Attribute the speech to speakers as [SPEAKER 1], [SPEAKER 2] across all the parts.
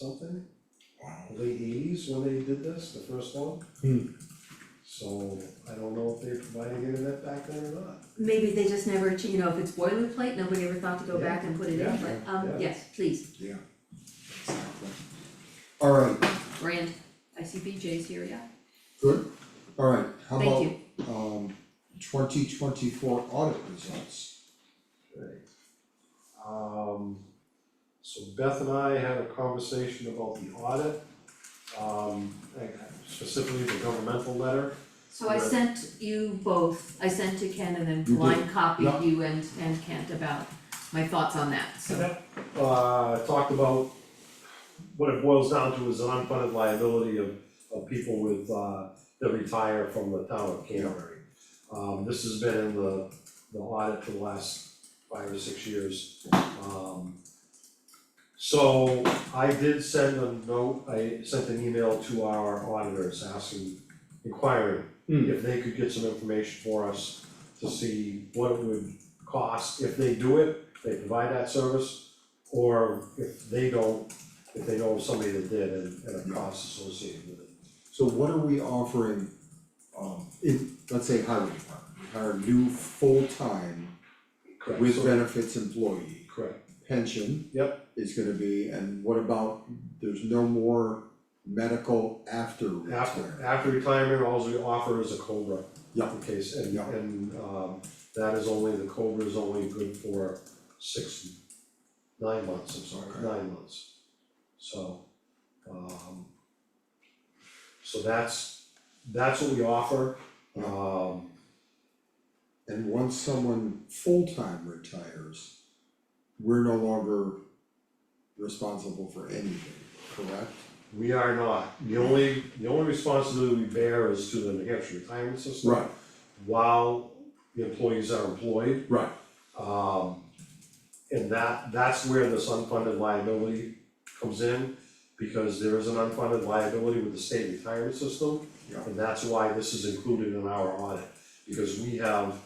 [SPEAKER 1] something,
[SPEAKER 2] Wow.
[SPEAKER 1] late eighties when they did this, the first one.
[SPEAKER 2] Hmm.
[SPEAKER 1] So I don't know if they provided internet back then or not.
[SPEAKER 3] Maybe they just never, ch- you know, if it's boilerplate, nobody ever thought to go back and put it in,
[SPEAKER 1] Yeah,
[SPEAKER 3] but, um,
[SPEAKER 1] yeah.
[SPEAKER 3] yes, please,
[SPEAKER 2] Yeah, exactly. Alright,
[SPEAKER 3] brand, I see BJ's here, yeah,
[SPEAKER 2] good, alright, how
[SPEAKER 3] thank
[SPEAKER 2] about
[SPEAKER 3] you.
[SPEAKER 2] um twenty twenty four audit results?
[SPEAKER 1] Right. Um, so Beth and I had a conversation about the audit, um, and specifically the governmental letter.
[SPEAKER 3] So I
[SPEAKER 1] Right.
[SPEAKER 3] sent you both, I sent to Ken and then
[SPEAKER 2] You did,
[SPEAKER 3] blind copied
[SPEAKER 2] yeah.
[SPEAKER 3] you and, and Kent about my thoughts on that, so.
[SPEAKER 1] Uh, talked about what it boils down to is an unfunded liability of, of people with, uh, that retire from the town of Canterbury. Um, this has been in the, the audit for the last five or six years. Um, so I did send a note, I sent an email to our auditors asking, inquiring
[SPEAKER 2] Hmm.
[SPEAKER 1] if they could get some information for us to see what it would cost if they do it, they provide that service, or if they don't, if they know somebody that did and and a cost associated with it.
[SPEAKER 2] So what are we offering, um, in, let's say highway department, we hire a new full-time
[SPEAKER 1] Correct,
[SPEAKER 2] with
[SPEAKER 1] so-
[SPEAKER 2] benefits employee,
[SPEAKER 1] Correct,
[SPEAKER 2] pension.
[SPEAKER 1] Yep.
[SPEAKER 2] Is gonna be, and what about, there's no more medical after
[SPEAKER 1] after,
[SPEAKER 2] retirement?
[SPEAKER 1] after retirement, all we offer is a Cobra.
[SPEAKER 2] Yeah.
[SPEAKER 1] In case, and
[SPEAKER 2] Yeah.
[SPEAKER 1] and um that is only, the Cobra is only good for six, nine months, I'm sorry,
[SPEAKER 2] Okay.
[SPEAKER 1] nine months. So, um, so that's, that's what we offer,
[SPEAKER 2] Yeah.
[SPEAKER 1] um.
[SPEAKER 2] And once someone full-time retires, we're no longer responsible for anything, correct?
[SPEAKER 1] We are not, the only, the only responsibility we bear is to the New Hampshire retirement system.
[SPEAKER 2] Right,
[SPEAKER 1] While the employees are employed,
[SPEAKER 2] right,
[SPEAKER 1] um, and that, that's where this unfunded liability comes in. Because there is an unfunded liability with the state retirement system,
[SPEAKER 2] yeah,
[SPEAKER 1] and that's why this is included in our audit, because we have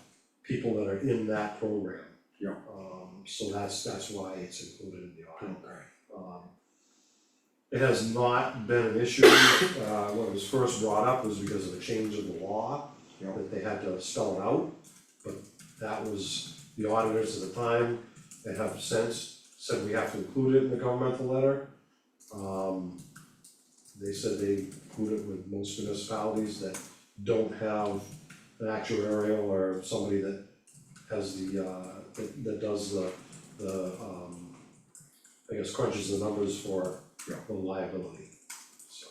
[SPEAKER 1] people that are in that program.
[SPEAKER 2] Yeah.
[SPEAKER 1] Um, so that's, that's why it's included in the audit.
[SPEAKER 2] okay,
[SPEAKER 1] Um, It has not been an issue, uh, when it was first brought up was because of a change in the law,
[SPEAKER 2] yeah,
[SPEAKER 1] that they had to spell it out. But that was, the auditors at the time, that have since said we have to include it in the governmental letter. Um, they said they include it with most municipalities that don't have an actuarial or somebody that has the, uh, that, that does the, the, um, I guess crunches the numbers for
[SPEAKER 2] Yeah.
[SPEAKER 1] the liability, so.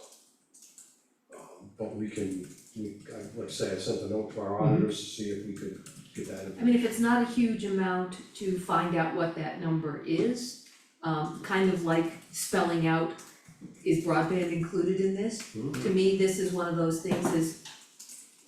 [SPEAKER 1] Um, but we can, we, I- like I say, I sent a note to our auditors to see if we could get that
[SPEAKER 3] Mm-hmm. I mean, if it's not a huge amount to find out what that number is, um, kind of like spelling out, is broadband included in this?
[SPEAKER 1] information.
[SPEAKER 3] to me, this is one of those things is,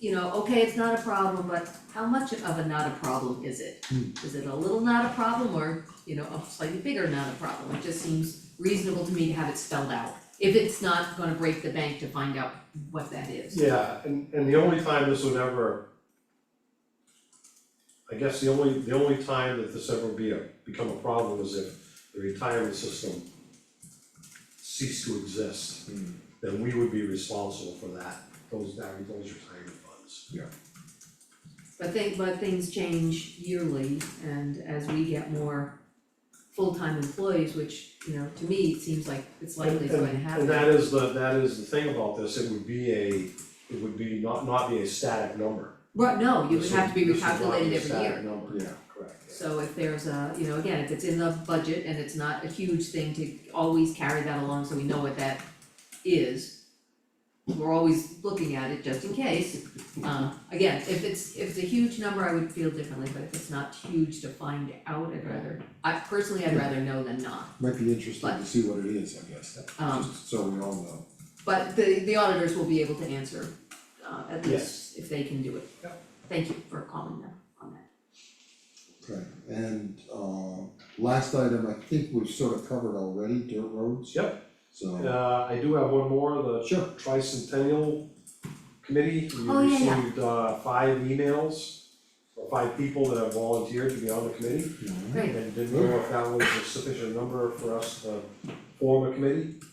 [SPEAKER 3] you know, okay, it's not a problem, but how much of a not a problem is it?
[SPEAKER 2] Hmm.
[SPEAKER 3] Is it a little not a problem or, you know, a slightly bigger not a problem? It just seems reasonable to me to have it spelled out. If it's not gonna break the bank to find out what that is.
[SPEAKER 1] Yeah, and and the only time this would ever. I guess the only, the only time that this ever be a, become a problem is if the retirement system ceased to exist,
[SPEAKER 2] Hmm.
[SPEAKER 1] then we would be responsible for that, those, that, those retirement funds.
[SPEAKER 3] But thing, but things change yearly and as we get more full-time employees, which, you know, to me, it seems like it's likely it's
[SPEAKER 1] And-
[SPEAKER 3] going to
[SPEAKER 1] and-
[SPEAKER 3] happen.
[SPEAKER 1] And that is the, that is the thing about this, it would be a, it would be not, not be a static number.
[SPEAKER 3] Right, no, you would
[SPEAKER 1] This
[SPEAKER 3] have to be
[SPEAKER 1] this would not
[SPEAKER 3] recalculated every year.
[SPEAKER 1] a static number.
[SPEAKER 2] yeah,
[SPEAKER 1] Correct.
[SPEAKER 3] So if there's a, you know, again, if it's in the budget and it's not a huge thing to always carry that along, so we know what that is. We're always looking at it just in case, uh, again, if it's, if it's a huge number, I would feel differently, but if it's not huge to find out, I'd rather, I personally, I'd rather know than not.
[SPEAKER 2] might be interesting to see what it is, I guess,
[SPEAKER 3] Um,
[SPEAKER 2] just so we all know.
[SPEAKER 3] But the the auditors will be able to answer, uh, at least if they can do it.
[SPEAKER 1] Yep.
[SPEAKER 3] Thank you for calling them on that.
[SPEAKER 2] Okay, and uh last item, I think we've sort of covered already, dirt roads.
[SPEAKER 1] Yep.
[SPEAKER 2] So,
[SPEAKER 1] Uh, I do have one more, the
[SPEAKER 2] sure,
[SPEAKER 1] tricentennial committee, we
[SPEAKER 3] Oh, yeah, yeah.
[SPEAKER 1] received uh five emails or five people that have volunteered to be on the committee
[SPEAKER 2] Alright.
[SPEAKER 3] Great.
[SPEAKER 1] and didn't know if that was a sufficient number for us to form a committee.